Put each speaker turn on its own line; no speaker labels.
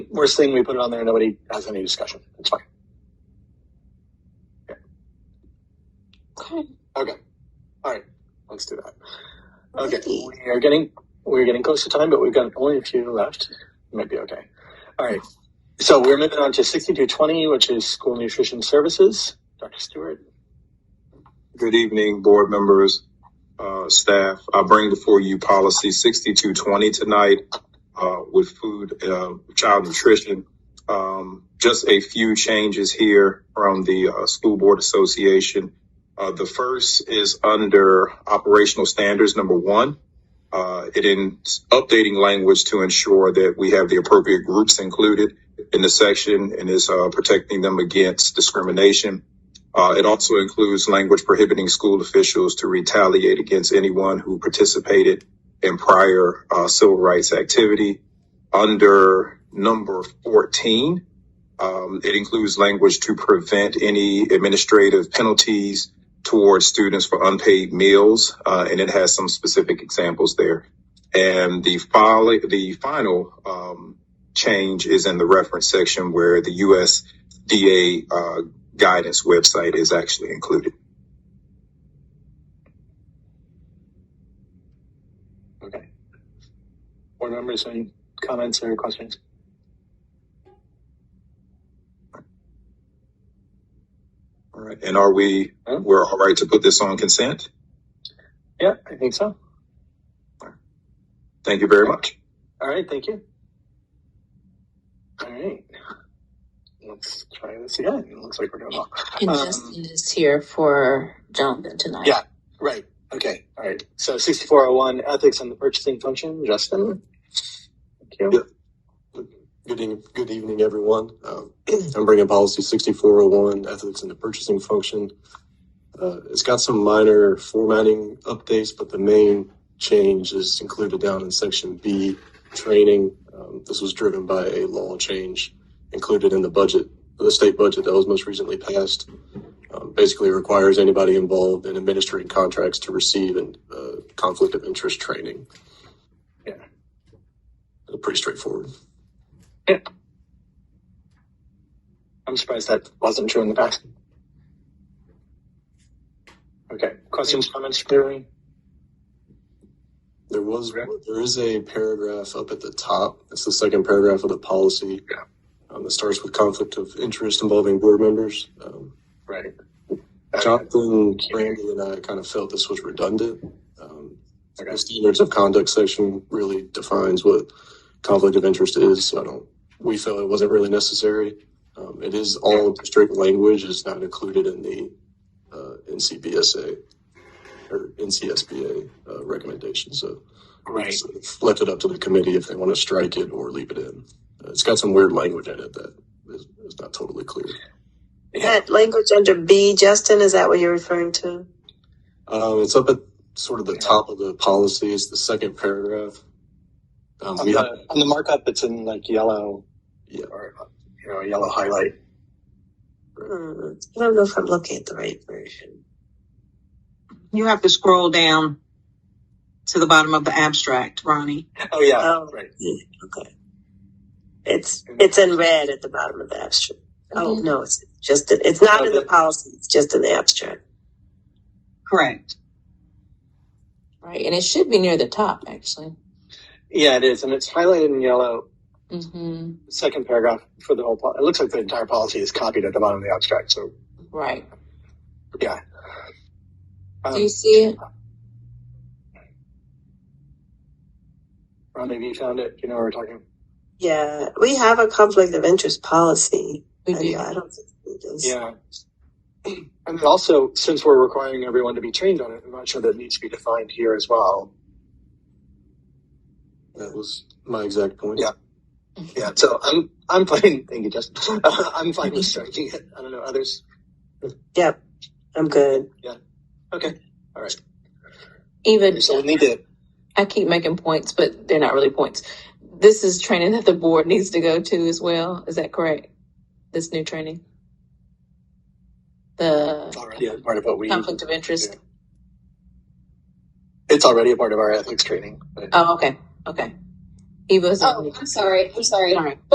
Worst thing, we put it on there. Nobody has any discussion. It's fine. Yeah. Okay. Okay. All right. Let's do that. Okay. We are getting we're getting close to time, but we've got only a few left. Might be okay. All right. So we're moving on to sixty-two twenty, which is school nutrition services. Dr. Stewart.
Good evening, board members, uh, staff. I bring before you policy sixty-two twenty tonight, uh, with food, uh, child nutrition. Um, just a few changes here from the, uh, School Board Association. Uh, the first is under operational standards, number one. Uh, it in updating language to ensure that we have the appropriate groups included in the section and is, uh, protecting them against discrimination. Uh, it also includes language prohibiting school officials to retaliate against anyone who participated in prior uh, civil rights activity. Under number 14, um, it includes language to prevent any administrative penalties towards students for unpaid meals, uh, and it has some specific examples there. And the, fol- the final um, change is in the reference section where the USDA uh, guidance website is actually included.
Okay. Board members, any comments or questions?
All right. And are we,
No?
we're all right to put this on consent?
Yeah, I think so.
Thank you very much.
All right, thank you. All right. Let's try this again. It looks like we're doing well. And Um, Justin is here for Jonathan tonight. Yeah, right. Okay. All right. So 6401 ethics and the purchasing function. Justin, thank you.
Yep. Good evening, good evening, everyone. Um, I'm bringing policy 6401, ethics in the purchasing function. Uh, it's got some minor formatting updates, but the main change is included down in section B, training. Um, this was driven by a law change included in the budget, the state budget that was most recently passed. Um, basically requires anybody involved in administering contracts to receive an uh, conflict of interest training.
Yeah.
Pretty straightforward.
yeah. I'm surprised that wasn't true in the past. Okay. Questions, comments, clearly?
There was
Okay.
there is a paragraph up at the top. It's the second paragraph of the policy
Yeah.
um, that starts with conflict of interest involving board members. Um,
Right. Uh, Okay.
Jonathan, Brandon, and I kind of felt this was redundant. Um,
Okay.
the standards of conduct section really defines what conflict of interest is. So I don't. We felt it wasn't really necessary. Um, it is all district language. It's not included in the uh, NCBSA or NCSBA uh, recommendation. So we
Right.
just sort of left it up to the committee if they want to strike it or leave it in. Uh, It's got some weird language in it that is, is not totally clear.
Yeah.
That language under B, Justin, is that what you're referring to?
Um, it's up at sort of the
Yeah.
top of the policy. It's the second paragraph. Um,
On
we have,
the, on the markup, it's in like yellow
yeah,
or, you know, yellow highlight.
Hmm, I don't know if I'm looking at the right version.
You have to scroll down to the bottom of the abstract, Ronnie.
Oh, yeah.
Um,
Oh,
Right.
yeah, okay. It's it's in red at the bottom of the abstract. Oh
Mhm.
no, it's just it's not
Oh,
in the
the-
policy. It's just in the abstract.
Correct.
Right, and it should be near the top actually.
Yeah, it is, and it's highlighted in yellow.
Mm-hmm.
hmm
The second paragraph for the whole. Po- it looks like the entire policy is copied at the bottom of the abstract. So
Right.
yeah. Um,
Do you see it?
Ron, have you found it? Do you know what we're talking?
Yeah, we have a conflict of interest policy.
We
uh,
I-
do.
I don't think it is.
Yeah, and then also since we're requiring everyone to be trained on it, I'm not sure that needs to be defined here as well.
that was my exact point.
Yeah. Yeah. So I'm I'm fine. Thank you, Justin. I'm fine with striking it. I don't know others.
Yep, I'm good.
Okay. All right.
even
So we need to.
I keep making points, but they're not really points. This is training that the board needs to go to as well. Is that correct? This new training, the
It's already a part of what we.
conflict of interest.
yeah. It's already a part of our ethics training. But
Oh, okay, okay. Eva's.
Oh, I'm sorry. I'm sorry.
All right.